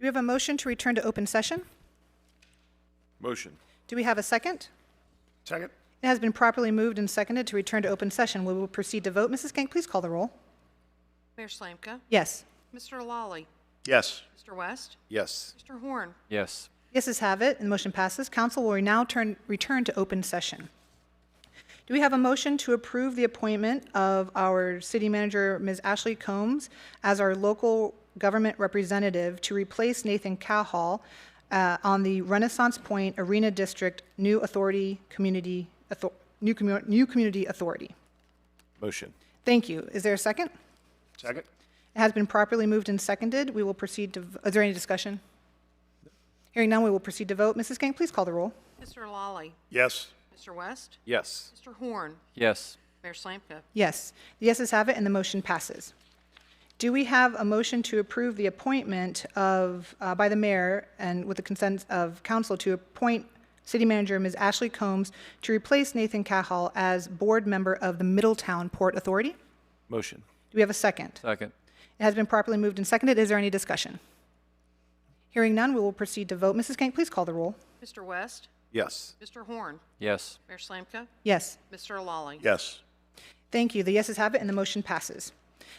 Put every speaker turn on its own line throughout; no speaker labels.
we have a motion to return to open session?
Motion.
Do we have a second?
Second.
It has been properly moved and seconded to return to open session. We will proceed to vote. Mrs. Kank, please call the roll.
Mayor Slanka?
Yes.
Mr. Lawley?
Yes.
Mr. West?
Yes.
Mr. Horn?
Yes.
Yeses have it, and the motion passes. Council will now turn, return to open session. Do we have a motion to approve the appointment of our city manager, Ms. Ashley Combs, as our local government representative to replace Nathan Cowhall uh, on the Renaissance Point Arena District New Authority Community, Author- New Commu- New Community Authority?
Motion.
Thank you. Is there a second?
Second.
It has been properly moved and seconded. We will proceed to, v- is there any discussion? Hearing none, we will proceed to vote. Mrs. Gang, please call the roll.
Mr. Lawley?
Yes.
Mr. West?
Yes.
Mr. Horn?
Yes.
Mayor Slanka?
Yes. The yeses have it, and the motion passes. Do we have a motion to approve the appointment of, uh, by the mayor and with the consent of council to appoint city manager Ms. Ashley Combs to replace Nathan Cahal as board member of the Middletown Port Authority? Do
Motion.
we have a second?
Second.
It has been properly moved and seconded. Is there any discussion? Hearing none, we will proceed to vote. Mrs. Kank, please call the roll.
Mr. West?
Yes.
Mr. Horn?
Yes.
Mayor Slanka?
Yes.
Mr. Lawley?
Yes.
Thank you. The yeses have it, and the motion passes.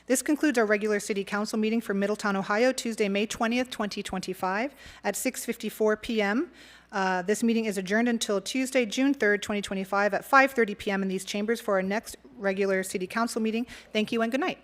This concludes our regular city council meeting for Middletown, Ohio, Tuesday, May 20th, 2025, at 6:54 PM. Uh, This meeting is adjourned until Tuesday, June 3rd, 2025, at 5:30 PM in these chambers for our next regular city council meeting. Thank you and good night.